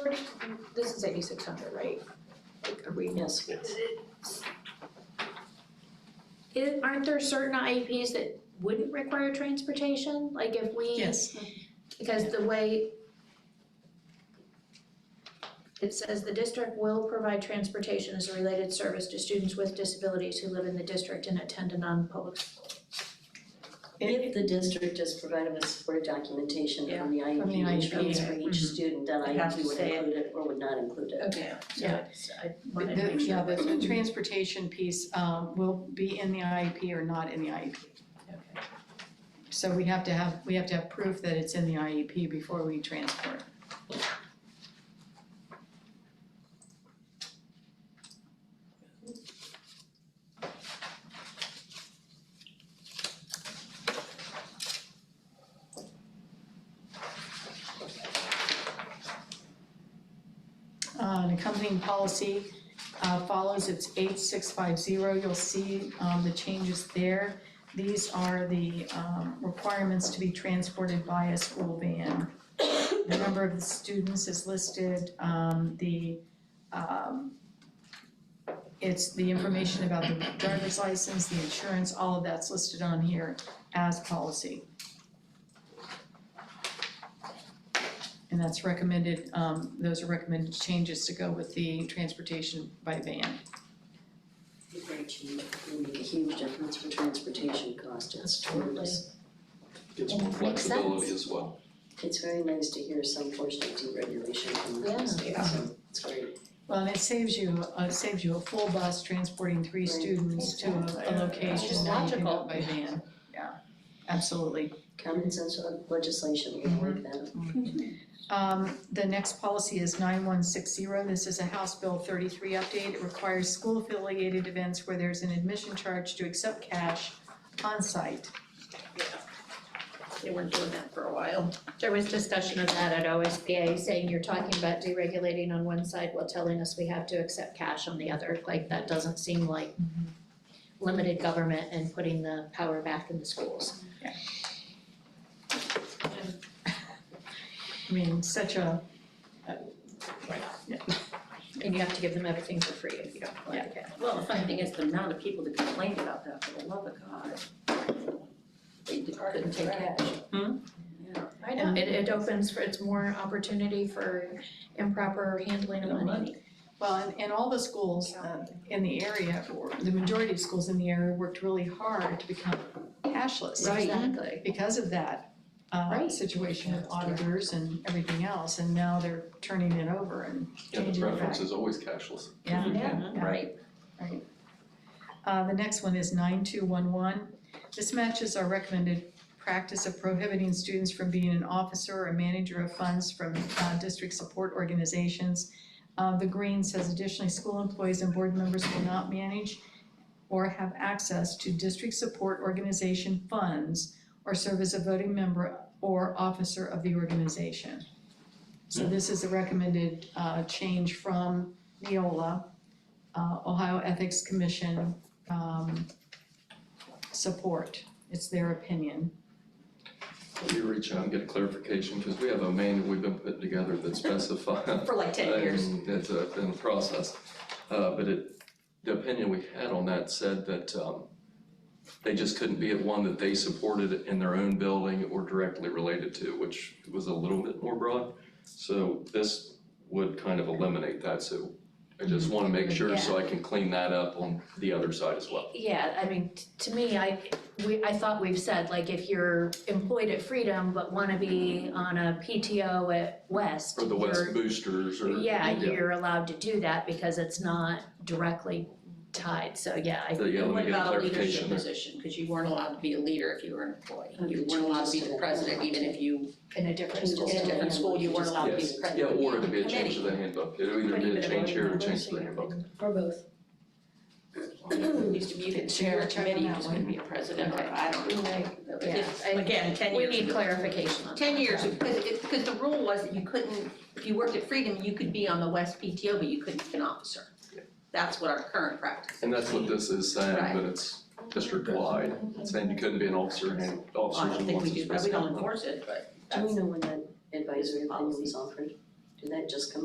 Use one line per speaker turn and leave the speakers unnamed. pretty, this is eighty-six hundred, right? Like, are we?
Yes.
Is- aren't there certain IEPs that wouldn't require transportation, like if we?
Yes.
Because the way it says the district will provide transportation as a related service to students with disabilities who live in the district and attend a non-public school.
If the district is provided with support documentation from the
from the
IEP,
E
which
IEP,
comes for each
mhm.
student, then
It
IEP
has mm-hmm. to
would
say it.
include it or would not include it.
Okay, so
Yeah.
it's, I
The-
wanted to make
Yeah,
sure.
the the transportation piece um, will be in the IEP or not in the E IEP. So we have to have, we have to have proof that it's in the IEP before we transport. Uh, An accompanying policy uh, follows, it's eight six five zero, you'll see, um, the changes there. These are the, um, requirements to be transported by a school van. The number of students is listed, um, the, um, it's the information about the driver's license, the insurance, all of that's listed on here as policy. And that's recommended, um, those are recommended changes to go with the transportation by van.
If they change, it would make a huge difference for transportation cost, it's tremendous.
Gives
And
more
it makes sense.
flexibility as well.
It's very nice to hear some portion of deregulation from
Yeah.
the state, so it's great.
Well, and it saves you, uh, it saves you a full bus transporting three
Right.
students to a, a
It's just
location, now you can
logical.
go by van, yeah, absolutely.
Common sense legislation, we
Mm-hmm.
like that.
Um, the next policy is nine one six zero, this is a House Bill thirty-three update, it requires school affiliated events where there's an admission charge to accept cash on site.
They weren't doing that for a while. There was discussion of that at OSBA, saying you're talking about deregulating on one side while telling us we have to accept cash on the other, like that doesn't seem like limited government and putting the power back in the schools.
I mean, such a,
And you have to give them everything for free if you don't like it.
Well, the funny thing is, the amount of people that complained about that, for the love of God. They did- couldn't take it.
I know, it, it opens for, it's more opportunity for improper handling of
No
money.
money.
well, and, and all the schools, uh, in the area, or the majority of schools in the area worked really hard to become cashless.
Exactly.
because of that uh
Right.
situation with auditors and everything else, and now they're turning it over and
Yeah, the
changing it back.
preference is always cashless.
Yeah.
Yeah.
Yeah.
Right.
Uh, the next one is nine two one one. This matches our recommended practice of prohibiting students from being an officer or manager of funds from uh, district support organizations. Uh, the green says additionally, school employees and board members will not manage or have access to district support organization funds or serve as a voting member or officer of the organization. So this is a recommended uh, change from Neola uh, Ohio Ethics Commission, um, support. It's their opinion.
Will you reach out and get a clarification, because we have a manual we've been putting together that specifies.
For like ten years.
And it's uh, been a process, uh, but it, the opinion we had on that said that, um, they just couldn't be at one that they supported in their own building or directly related to, which was a little bit more broad. So this would kind of eliminate that, so I just wanna make sure so I can clean that up on the other side as well.
Yeah, I mean, t- to me, I, we, I thought we've said, like, if you're employed at Freedom but wanna be on a PTO at West,
Or the
you're-
West Boosters or.
Yeah, you're allowed to do that because it's not directly tied, so yeah, I,
So, yeah,
And
let
what
me get a
about a leadership
clarification there.
position? Because you weren't allowed to be a leader if you were an employee.
Okay,
You weren't allowed to be
changes to
the
that.
president, even if you,
in a different
in
school.
a different school, you weren't allowed to be
Yes,
the president.
yeah,
of the
or it'd be a
committee.
change to the handbook, it'd either
But
be
even
a
if
change
I'm
here or
not
change to the
listening,
handbook.
Or both.
It Used to be that if you were a
Chair,
committee,
turn
you
on
just
that
couldn't be a president, or I don't know.
Yeah.
It's- Again, ten
We
years.
need
ago.
clarification on that.
Ten years, because it, because the rule was that you couldn't, if you worked at Freedom, you could be on the West PTO, but you couldn't be an officer.
Yeah.
That's what our current practice is.
And that's what this is saying, but it's district wide, it's saying you couldn't be an officer and
Well, I
officers
don't
and
think we
ones
do,
that's
that. we
supposed
don't
to.
enforce it, but
Do
that's.
we know when that advisory opinion
Policy.
was offered? Did that just come